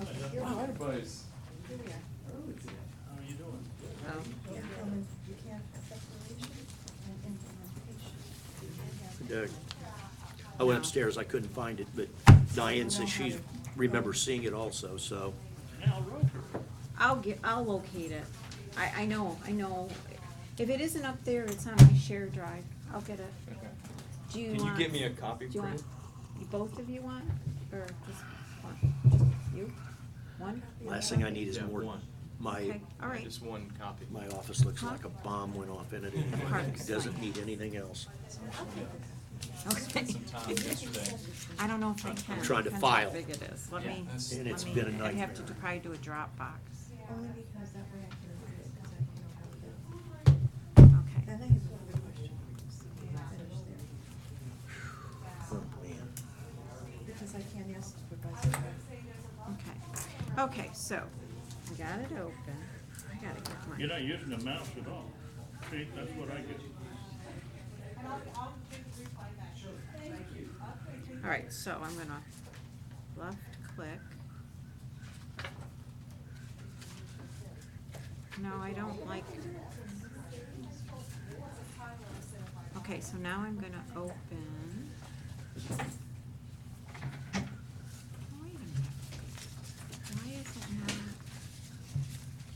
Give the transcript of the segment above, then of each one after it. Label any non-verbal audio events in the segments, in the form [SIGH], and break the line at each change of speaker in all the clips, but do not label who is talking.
Okay.
Wow,
everybody's
Here we are.
early today.
How are you doing?
You can't, you can't have declaration and implementation. You can't
Doug.
have-
I went upstairs, I couldn't find it, but Diane says she remembers seeing it also, so.
Al Roker.
I'll get, I'll locate it. I, I know, I know. If it isn't up there, it's on my share drive. I'll get it.
Okay.
Do you
Can
want?
you get me a copy,
Do you want,
please?
you both of you want, or just one? Just you? One?
Last thing I need is
Yeah,
more,
one.
my,
Okay, all right.
Just one copy.
my office looks like a bomb went off in it. It
Parks.
doesn't need anything else.
Okay. [LAUGHS]
Some time yesterday.
I don't know if I can.
I'm trying to
Depends how
file.
big it is. Let
Yeah,
me,
that's-
And it's
let me,
been a
I'd have to
nightmare.
do- probably do a Dropbox.
Only because that way I can read it, because I don't have that.
Okay.
Then I have another question. so when I finish there,
Oh, man.
Because I can't ask supervisor.
Okay, okay, so, we got it open. I gotta get
You're
my,
not using the mouse at all. See, that's what I get.
all right, so I'm gonna left click. No, I don't like. Okay, so now I'm gonna open. Wait a minute. Why is it not?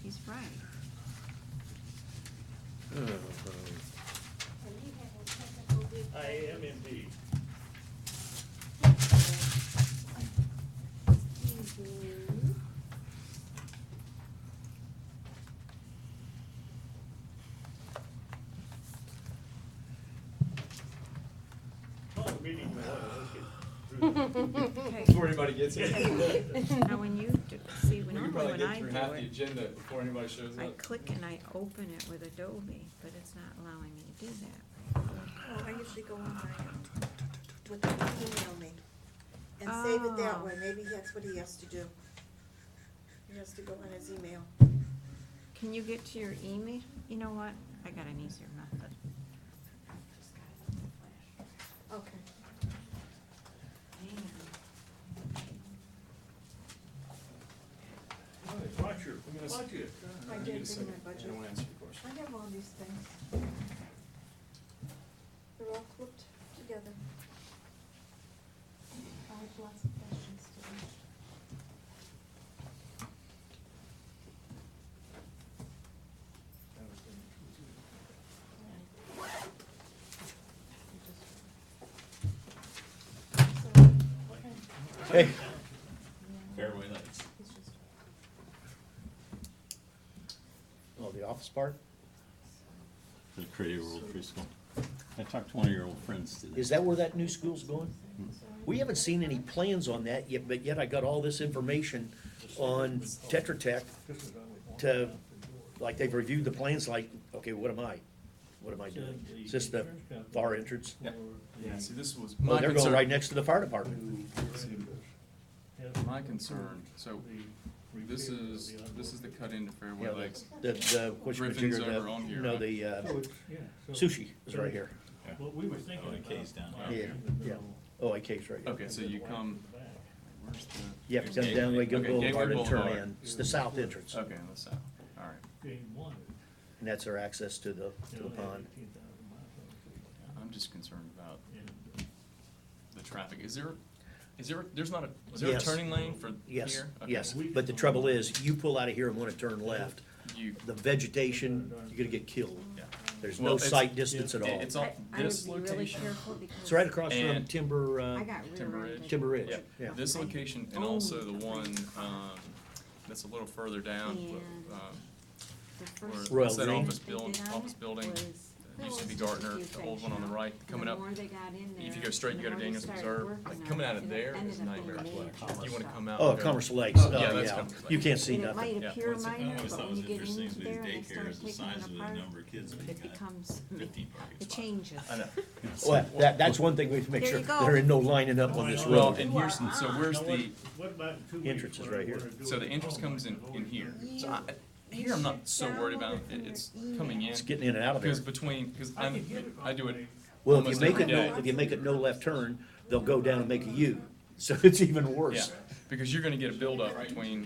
He's right.
Uh-huh.
I am indeed. Call the meeting to order. Let's get through this.
Okay.
Before anybody gets here. We
Now, when you, do- see,
can
when normally
probably
when
get
I
through half
do
the
it,
agenda before anybody shows
I
up.
click and I open it with Adobe, but it's not allowing me to do that.
Oh, I usually go on my, with the email me and save it that
Oh.
way. Maybe that's what he has to do. He has to go on his email.
Can you get to your email? You know what? I got an easier method.
Okay.
Watch your,
I'm gonna s-
watch it.
I
Give me a
did bring
second.
my
I
budget.
don't wanna answer your question.
I have all these things. They're all clipped together. I have lots of questions to ask. So, what kind of-
Hey. Fairway lights.
it's just-
Oh, the office part?
The Creative World Preschool. I talked to one of your old friends today.
Is that where that new school's going?
so
We haven't seen any plans on that yet, but yet I got all this information on Tetra Tech to, like, they've reviewed the plans, like, okay, what am I? What am I doing? Is this the far entrance?
Yep. Yeah, see, this was
Oh,
my
they're going right
concern.
next to the fire department.
My concern, so Oh, this is, this is the cut into
Yeah,
Fairway
the-
Lakes.
The, the, what's your
Griffin's
jigger,
over
the,
on here,
no,
right?
the uh,
So Oh, it's- yeah, so-
sushi is right here.
What we were thinking
Oh, the
about.
K's down.
like,
Yeah,
in the
yeah.
middle,
OIK's right here.
Okay, so you come,
back.
where's the?
You have to come down Lake
Okay, Gateway
Boulevard and turn
Boulevard.
in. It's the south entrance,
Okay, on the south, all right.
Game one.
and that's their access to the,
you
to
know,
the
they had
pond.
18,000 miles on
I'm just concerned about
it. And, uh,
the traffic. Is there, is there, there's not a, is there a
Yes.
turning lane for here?
Yes,
Okay.
yes. But the trouble is, you pull out of here and wanna turn left,
You,
the vegetation, you're gonna get killed.
yeah.
There's
Well,
no
it's-
sight distance at
It-
all.
It's off
I-
this
I would be really
location.
careful because.
It's right across from
and-
Timber, uh,
I got
Timber
rear-ended.
Ridge.
Timber Ridge,
Yeah,
yeah.
this location and
Oh.
also the one, um, that's a little further down,
And-
um,
The
or
first
Royal
it's that
Green.
office
thing they
build,
did on
office
it
building.
was-
It used to be Gardner, the old one on the right, coming
The
up.
more they got in
If you
there,
go straight,
the
you go to
more they
Daniels
started
Reserve,
working
like
on
coming
it,
out of
and it
there
ended
is
up being
nightmare.
major
You wanna
stuff.
come out.
Oh,
and go-
Commerce Lakes,
yeah,
oh,
that's
yeah.
Commerce Lakes.
You can't see
And it
nothing.
might
Yeah.
appear
What's- I
minor,
always
but
thought
when
was
you get
interesting
into
with
there and they
these
start
daycares, the
taking
size
it
of the
apart,
number of kids when you
it
got
becomes,
15 parking
it
spots.
changes.
I know.
Well, that, that's one thing we have to make
There
sure,
you go.
there ain't no lining up on this
Well,
road.
and here's, so where's
Now, what-
the,
What about in two weeks?
Entrance is
when I
right here.
wanna do
so
it
the
at
entrance
home?
comes in, in here. So I,
You
here I'm
should
not so worried about
download it
it,
from
it's
your
coming in.
It's getting in and out of there.
Because between, because
I
I'm,
could get it
I do it
off
Well, if you
almost
make
every
it no,
day.
if you make it no left turn, they'll go down and make a U. [LAUGHS] so it's even worse.
Yeah, because you're gonna get a buildup between